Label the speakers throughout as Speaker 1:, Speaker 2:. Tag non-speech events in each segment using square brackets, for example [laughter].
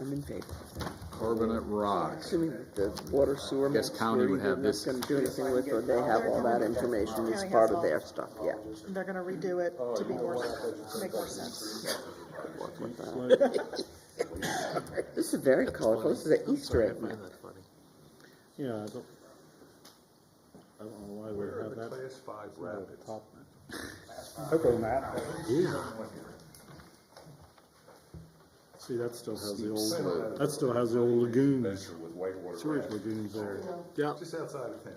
Speaker 1: I'm in favor.
Speaker 2: Carbonate rocks.
Speaker 1: Assuming that the water sewer.
Speaker 2: Guess
Speaker 1: makes
Speaker 2: county
Speaker 1: sure
Speaker 2: would
Speaker 1: you're
Speaker 2: have
Speaker 1: not
Speaker 2: this.
Speaker 1: Gonna do anything with, or they have all that information, it's
Speaker 3: County has
Speaker 1: part of
Speaker 3: all-
Speaker 1: their stuff, yeah.
Speaker 3: They're gonna redo it to be more, to make more sense.
Speaker 1: This is very colorful, this is an Easter egg map.
Speaker 4: Yeah, I don't, I don't know why we
Speaker 5: Where are
Speaker 4: have
Speaker 5: the
Speaker 4: that.
Speaker 5: class five
Speaker 4: at the
Speaker 5: rapids?
Speaker 4: top.
Speaker 6: Cocoa map.
Speaker 4: See, that still has the old, that still has the old lagoons,
Speaker 5: Venture with whitewater
Speaker 4: storage
Speaker 5: rapids,
Speaker 4: lagoons there. Yeah,
Speaker 5: just outside of town.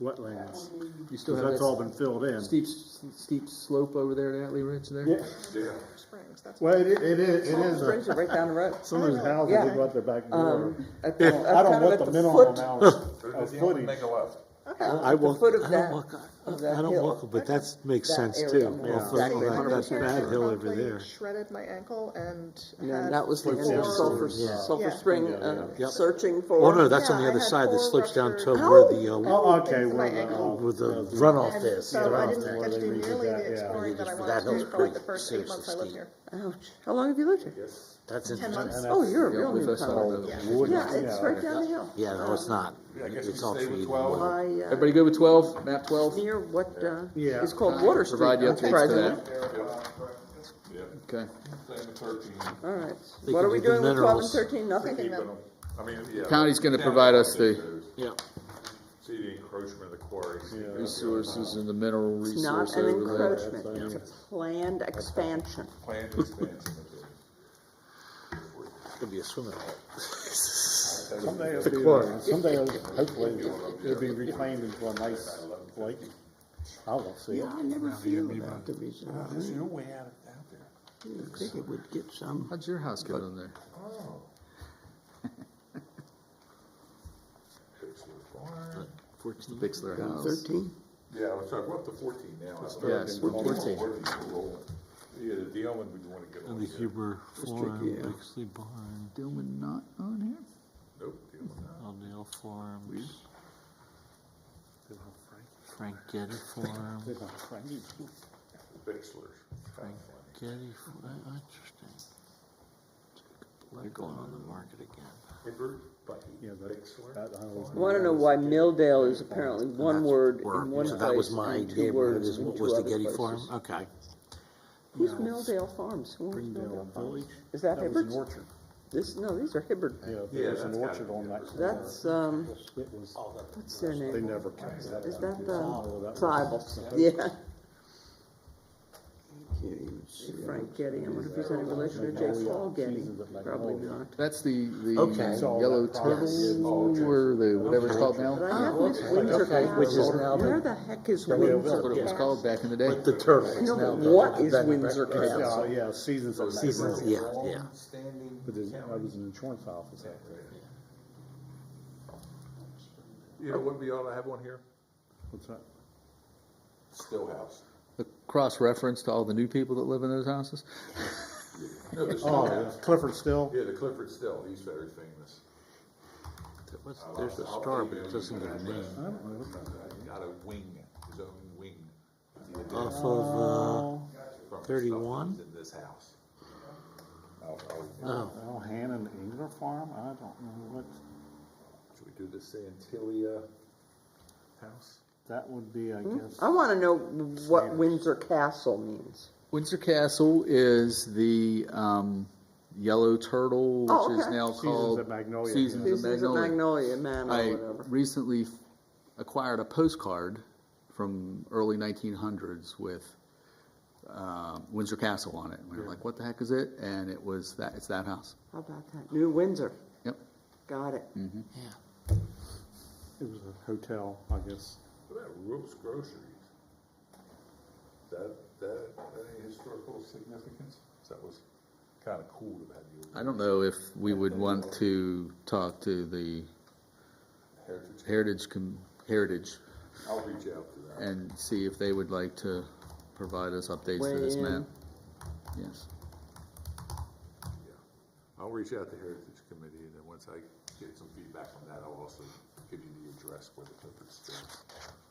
Speaker 4: wetlands,
Speaker 2: You still
Speaker 4: because
Speaker 2: have
Speaker 4: that's all
Speaker 2: that
Speaker 4: been filled in.
Speaker 2: steep, steep slope over there at Atlee Ridge there?
Speaker 4: Yeah,
Speaker 5: Yeah.
Speaker 3: Springs, that's.
Speaker 4: well, it, i- it is, it is,
Speaker 1: Springs
Speaker 4: a-
Speaker 1: are right down the road.
Speaker 4: some of these houses
Speaker 1: Yeah.
Speaker 4: have got their back door.
Speaker 1: Um, at the-
Speaker 4: I don't
Speaker 1: kind
Speaker 4: know
Speaker 1: of
Speaker 4: what
Speaker 1: at
Speaker 4: the
Speaker 1: the
Speaker 4: minimum
Speaker 1: foot- [laughs]
Speaker 4: amount of
Speaker 2: Oh,
Speaker 5: Does anyone
Speaker 4: footage.
Speaker 5: make a left?
Speaker 7: I
Speaker 1: At the
Speaker 7: walk,
Speaker 1: foot of
Speaker 7: I
Speaker 1: that,
Speaker 7: don't walk,
Speaker 1: of that
Speaker 7: I don't
Speaker 1: hill.
Speaker 7: walk, but that makes
Speaker 1: That
Speaker 7: sense
Speaker 1: area,
Speaker 7: too.
Speaker 1: I'm
Speaker 7: Off of
Speaker 1: exactly
Speaker 7: that- that
Speaker 1: 100%
Speaker 7: bad hill over
Speaker 3: Promptly
Speaker 7: there.
Speaker 3: Shredded my ankle and
Speaker 1: No,
Speaker 3: had.
Speaker 1: that was the
Speaker 3: four-
Speaker 1: end of Sulphur,
Speaker 7: Yeah.
Speaker 1: Sulphur
Speaker 3: Yeah.
Speaker 1: Spring, uh,
Speaker 7: Yep.
Speaker 1: searching for.
Speaker 7: Oh, no, that's on
Speaker 3: Yeah,
Speaker 7: the
Speaker 3: I
Speaker 7: other
Speaker 3: had
Speaker 7: side that
Speaker 3: four
Speaker 7: slopes down to
Speaker 3: ruptured-
Speaker 7: where the, uh,
Speaker 4: Oh, okay,
Speaker 3: Things
Speaker 4: well,
Speaker 3: my ankle.
Speaker 4: the-
Speaker 7: with the runoff
Speaker 3: And
Speaker 7: there.
Speaker 3: so I
Speaker 7: runoff
Speaker 3: didn't
Speaker 7: there.
Speaker 3: get to do
Speaker 4: They redid
Speaker 3: nearly
Speaker 4: that,
Speaker 3: the exploring
Speaker 7: yeah.
Speaker 3: that I
Speaker 7: That
Speaker 3: wanted to
Speaker 7: hill's
Speaker 3: do for like the
Speaker 7: pretty
Speaker 3: first eight
Speaker 7: seriously
Speaker 3: month I lived
Speaker 7: steep.
Speaker 3: here.
Speaker 1: Ouch, how long have you lived here?
Speaker 7: That's
Speaker 3: Ten
Speaker 7: interesting.
Speaker 3: months.
Speaker 1: Oh, you're a
Speaker 2: Yeah,
Speaker 1: real
Speaker 2: with us, I don't
Speaker 1: newcomer.
Speaker 2: know.
Speaker 4: uh, Wood,
Speaker 1: Yeah, it's
Speaker 4: yeah.
Speaker 1: right down the hill.
Speaker 7: Yeah, no, it's not.
Speaker 5: I guess
Speaker 7: It's
Speaker 5: you
Speaker 7: all
Speaker 5: stay
Speaker 7: treated.
Speaker 5: with twelve.
Speaker 1: By, uh,
Speaker 2: Everybody good with twelve, map twelve?
Speaker 1: near what, uh,
Speaker 4: Yeah.
Speaker 1: is called Water Street.
Speaker 2: Provide you updates to
Speaker 1: surprisingly.
Speaker 2: that.
Speaker 5: Yeah,
Speaker 2: Okay.
Speaker 5: same with thirteen.
Speaker 1: All right,
Speaker 7: They
Speaker 1: what
Speaker 7: can
Speaker 1: are we
Speaker 7: do the
Speaker 1: doing with twelve and
Speaker 7: minerals.
Speaker 1: thirteen, nothing?
Speaker 5: Keeping them, I mean, yeah.
Speaker 2: County's gonna
Speaker 5: Town
Speaker 2: provide us
Speaker 5: did
Speaker 2: the-
Speaker 5: those.
Speaker 7: Yeah.
Speaker 5: See the encroachment of the quarries.
Speaker 2: Resources and the mineral
Speaker 1: It's
Speaker 2: resource
Speaker 1: not an
Speaker 2: overlay.
Speaker 1: encroachment, it's a planned expansion.
Speaker 5: Planned expansion of it.
Speaker 7: Could be a swimming hole.
Speaker 4: Someday it'll be, uh, someday it'll- hopefully it'll be reclaimed into a nice lake. I will see it.
Speaker 6: I never feel about the reservoir.
Speaker 5: There's no way out of, out there.
Speaker 6: You think it would get some,
Speaker 2: How'd your house get on there?
Speaker 7: Fourteen.
Speaker 2: Bixler house.
Speaker 6: thirteen?
Speaker 5: Yeah, let's talk, we're up to fourteen now.
Speaker 2: Yes, we're fourteen.
Speaker 5: Yeah, the Dillman, we want to get on
Speaker 7: The
Speaker 5: here.
Speaker 7: Huber Farm, Bixley Barn,
Speaker 2: Dillman not on here?
Speaker 5: Nope, Dillman, no.
Speaker 7: Aldale Farms. Frank Getty Farm,
Speaker 5: Bixler's.
Speaker 7: Getty, Fa- uh, interesting. They're going on the market again.
Speaker 5: Hibbert, Bucky,
Speaker 4: Yeah, that-
Speaker 5: Bixler.
Speaker 4: that I always-
Speaker 1: I wanna know why Milldale is apparently one word in one
Speaker 7: Where-
Speaker 1: place
Speaker 7: So that was my
Speaker 1: and
Speaker 7: idea,
Speaker 1: two
Speaker 7: what
Speaker 1: words
Speaker 7: is,
Speaker 1: in
Speaker 7: what
Speaker 1: two
Speaker 7: was the
Speaker 1: other
Speaker 7: Getty Farm?
Speaker 1: places.
Speaker 7: Okay.
Speaker 1: Who's Milldale Farms? Who owns Milldale
Speaker 4: Springdale
Speaker 1: Farms?
Speaker 4: Village.
Speaker 1: Is that
Speaker 4: was an
Speaker 1: Hibbert?
Speaker 4: orchard.
Speaker 1: This, no, these are Hibbert.
Speaker 4: Yeah,
Speaker 5: Yeah,
Speaker 4: there was an
Speaker 5: that's
Speaker 4: orchard
Speaker 5: gotta
Speaker 4: on
Speaker 5: be
Speaker 4: that. corner.
Speaker 1: That's, um,
Speaker 4: It was,
Speaker 1: what's their
Speaker 4: they
Speaker 1: name?
Speaker 4: never kept that.
Speaker 1: Is that
Speaker 4: Oh,
Speaker 1: the
Speaker 4: that
Speaker 1: tribal?
Speaker 4: was-
Speaker 1: Yeah,
Speaker 6: Can't even see.
Speaker 1: Frank Getty, I wonder if he's any relation to J. Paul Getty, probably not.
Speaker 2: That's the, the
Speaker 7: Okay.
Speaker 2: yellow turtle or the, whatever it's called now?
Speaker 1: But I have Miss Windsor Castle.
Speaker 7: Which is now the-
Speaker 1: Where the heck is
Speaker 2: That's what
Speaker 1: Windsor
Speaker 2: it was
Speaker 1: Castle?
Speaker 2: called back in the day.
Speaker 7: But the turtles.
Speaker 1: No,
Speaker 7: now
Speaker 1: but
Speaker 7: the-
Speaker 1: what is
Speaker 7: that-
Speaker 1: Windsor Castle?
Speaker 4: Yeah, yeah, seasons of.
Speaker 7: Seasons, yeah, yeah.
Speaker 5: Standing
Speaker 4: But there's- I was an insurance office out there.
Speaker 5: You know what, we ought to have one here?
Speaker 4: What's that?
Speaker 5: Stillhouse.
Speaker 2: The cross-reference to all the new people that live in those houses?
Speaker 5: No, the
Speaker 4: Oh, yeah,
Speaker 5: Stillhouse.
Speaker 4: Clifford Still?
Speaker 5: Yeah, the Clifford Still, he's very famous.
Speaker 7: What's- There's a star, but it doesn't have a name.
Speaker 5: Got a wing, his own wing.
Speaker 7: Off of,
Speaker 5: from stuff that
Speaker 7: 31?
Speaker 5: was In this house. I'll-
Speaker 7: uh,
Speaker 5: I'll-
Speaker 7: oh,
Speaker 4: Oh, Hannon Engler Farm? I don't know what,
Speaker 5: Should we do the Santilia house?
Speaker 4: that would be, I guess.
Speaker 1: I wanna know what Windsor Castle means.
Speaker 2: Windsor Castle is the um, yellow turtle, which
Speaker 1: Oh,
Speaker 2: is
Speaker 1: okay.
Speaker 2: now
Speaker 4: Seasons
Speaker 2: called
Speaker 4: of Magnolia,
Speaker 2: Seasons
Speaker 4: yeah.
Speaker 2: of
Speaker 1: This is a
Speaker 2: Magnolia.
Speaker 1: Magnolia Man
Speaker 2: I
Speaker 1: or whatever.
Speaker 2: recently f- acquired a postcard from early 1900s with uh, Windsor Castle on it. We were like, "What the heck is it?" And it was that. It's that house.
Speaker 1: How about that? New Windsor,
Speaker 2: Yep.
Speaker 1: got it.
Speaker 7: yeah.
Speaker 4: It was a hotel, I guess.
Speaker 5: What about Rupp's Groceries? That, that, any historical significance? That was kinda cool to have
Speaker 2: I
Speaker 5: you,
Speaker 2: don't know if we would want to talk to the
Speaker 5: Heritage.
Speaker 2: Heritage com- Heritage
Speaker 5: I'll reach out to them.
Speaker 2: and see if they would like to provide us updates to this
Speaker 1: Weigh in.
Speaker 2: map. Yes.
Speaker 5: Yeah. I'll reach out to Heritage Committee, and then once I get some feedback on that, I'll also give you the address where the Clifford Still